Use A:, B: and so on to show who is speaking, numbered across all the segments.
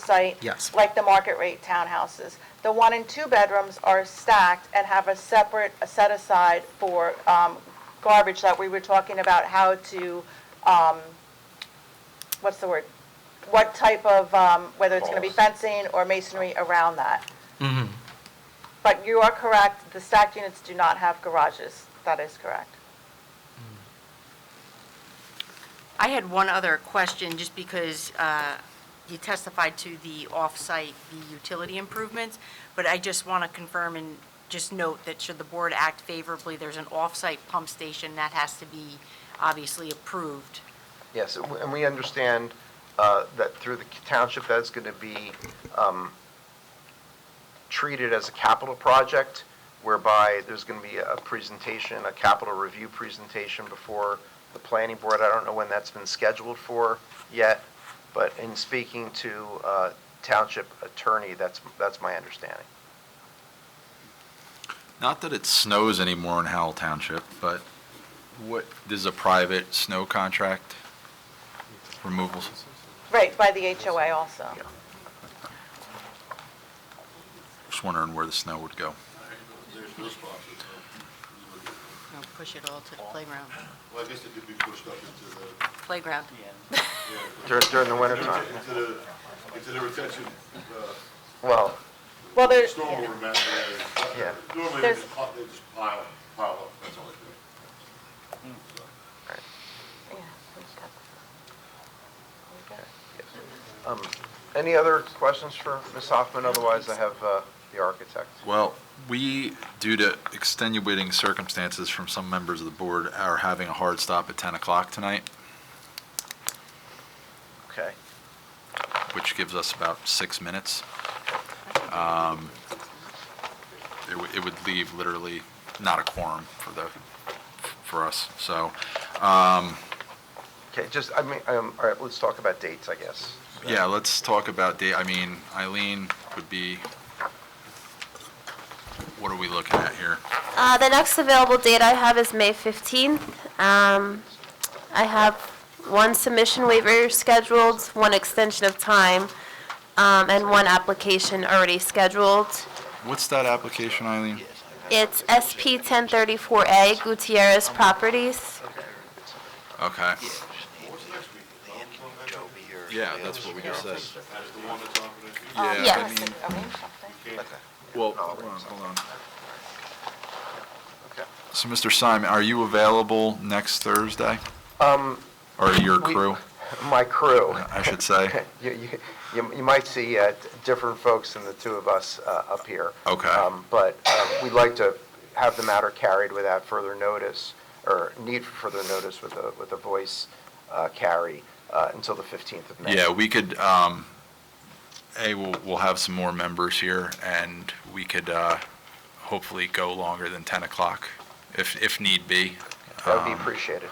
A: site.
B: Yes.
A: Like the market rate townhouses. The one and two bedrooms are stacked and have a separate a set aside for um, garbage that we were talking about how to, um, what's the word? What type of, um, whether it's going to be fencing or masonry around that.
C: Mm-hmm.
A: But you are correct, the stacked units do not have garages. That is correct.
D: I had one other question, just because uh, you testified to the off-site, the utility improvements, but I just want to confirm and just note that should the board act favorably, there's an off-site pump station that has to be obviously approved.
E: Yes, and we- and we understand uh, that through the township, that's going to be um, treated as a capital project whereby there's going to be a presentation, a capital review presentation before the planning board. I don't know when that's been scheduled for yet, but in speaking to uh, township attorney, that's, that's my understanding.
C: Not that it snows anymore in Howell Township, but what, this is a private snow contract removal.
A: Right, by the HOA also.
C: Just wondering where the snow would go.
F: There's no spot.
D: You know, Push it all to the playground.
F: Well, I guess it could be pushed up into the,
D: Playground.
E: Dur- During the wintertime,
F: into into the, into the retention, uh,
E: well,
A: Well, there's,
F: stormwater management area.
E: Yeah.
F: Normally, they
A: There's-
F: just pile, they just pile, pile up, that's all they do.
E: um, any other questions for Ms. Hoffman? Otherwise, I have uh, the architect.
C: Well, we, due to extenuating circumstances from some members of the board, are having a hard stop at 10 o'clock tonight,
E: Okay.
C: which gives us about six minutes. Um, It would, it would leave literally not a quorum for the, for us, so, um,
E: Okay, just, I mean, um, all right, let's talk about dates, I guess.
C: Yeah, let's talk about date, I mean, Eileen would be, what are we looking at here?
G: Uh, the next available date I have is May 15th. Um, I have one submission waiver scheduled, one extension of time, um, and one application already scheduled.
C: What's that application, Eileen?
G: It's SP 1034A Gutierrez Properties.
C: Okay,
H: Toby or
C: yeah, that's what we just said.
F: That's the one that's on for next week.
C: Yeah, I
G: Yes.
C: mean,
A: arrange something.
C: well, hold on, hold on.
E: Okay.
C: So, Mr. Simon, are you available next Thursday?
E: Um,
C: Or your
E: We-
C: crew,
E: my crew,
C: I should say?
E: you, you, you you might see, uh, d- different folks than the two of us, uh, up here.
C: Okay.
E: Um, but, uh, we'd like to have the matter carried without further notice, or need for further notice with a, with a voice, uh, carry, uh, until the fifteenth of May.
C: Yeah, we could, um, A, we'll, we'll have some more members here, and we could, uh, hopefully go longer than 10 o'clock, if, if need be.
E: That would be
C: Um,
E: appreciated.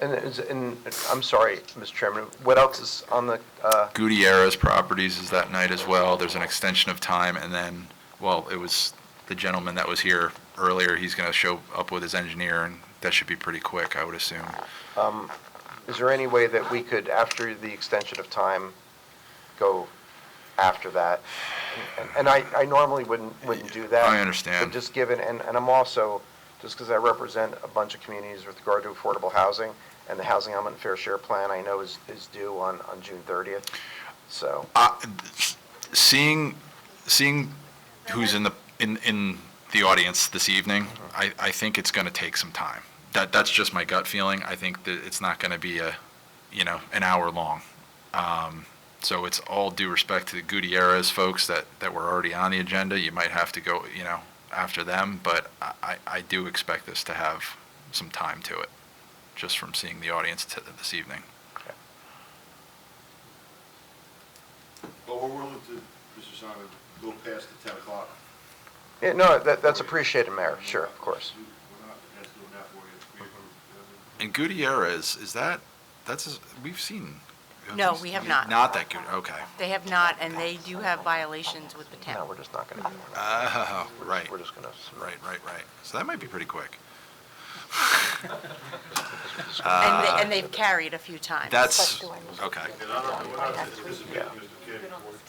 E: And, is- and, I'm sorry, Mr. Chairman, what else is on the, uh,
C: Gutierrez Properties is that night as well. There's an extension of time, and then, well, it was the gentleman that was here earlier, he's going to show up with his engineer, and that should be pretty quick, I would assume.
E: Is there any way that we could, after the extension of time, go after that? And- And I, I normally wouldn't, wouldn't do that.
C: I understand.
E: But just given, and, and I'm also, just because I represent a bunch of communities with regard to affordable housing, and the Housing Element Fair Share Plan, I know is, is due on, on June 30th, so.
C: Uh, Seeing, seeing who's in the, in, in the audience this evening, I, I think it's going to take some time. That, that's just my gut feeling. I think that it's not going to be a, you know, an hour long. Um, So it's all due respect to the Gutierrez folks that, that were already on the agenda. You might have to go, you know, after them, but I, I- I do expect this to have some time to it, just from seeing the audience t- this evening.
F: But we're willing to, Mr. Simon, go past the ten o'clock.
E: Yeah, no, that, that's appreciated, Mayor, sure, of course.
F: We're not, that's doing that for you. We-
C: And Gutierrez, is that, that's, his- we've seen.
D: No, we have not.
C: Not that good, okay.
D: They have not, and they do have violations with the
E: No,
D: town.
E: we're just not going to do that.
C: Oh, right,
E: We're
C: right,
E: just going to.
C: right, right. So that might be pretty quick.
D: And they- and they've carried a few times.
C: Uh, That's,
A: But do I need-
C: okay.
F: And I don't know what
A: I
F: else,
A: have to-
F: this is making Mr. Kim.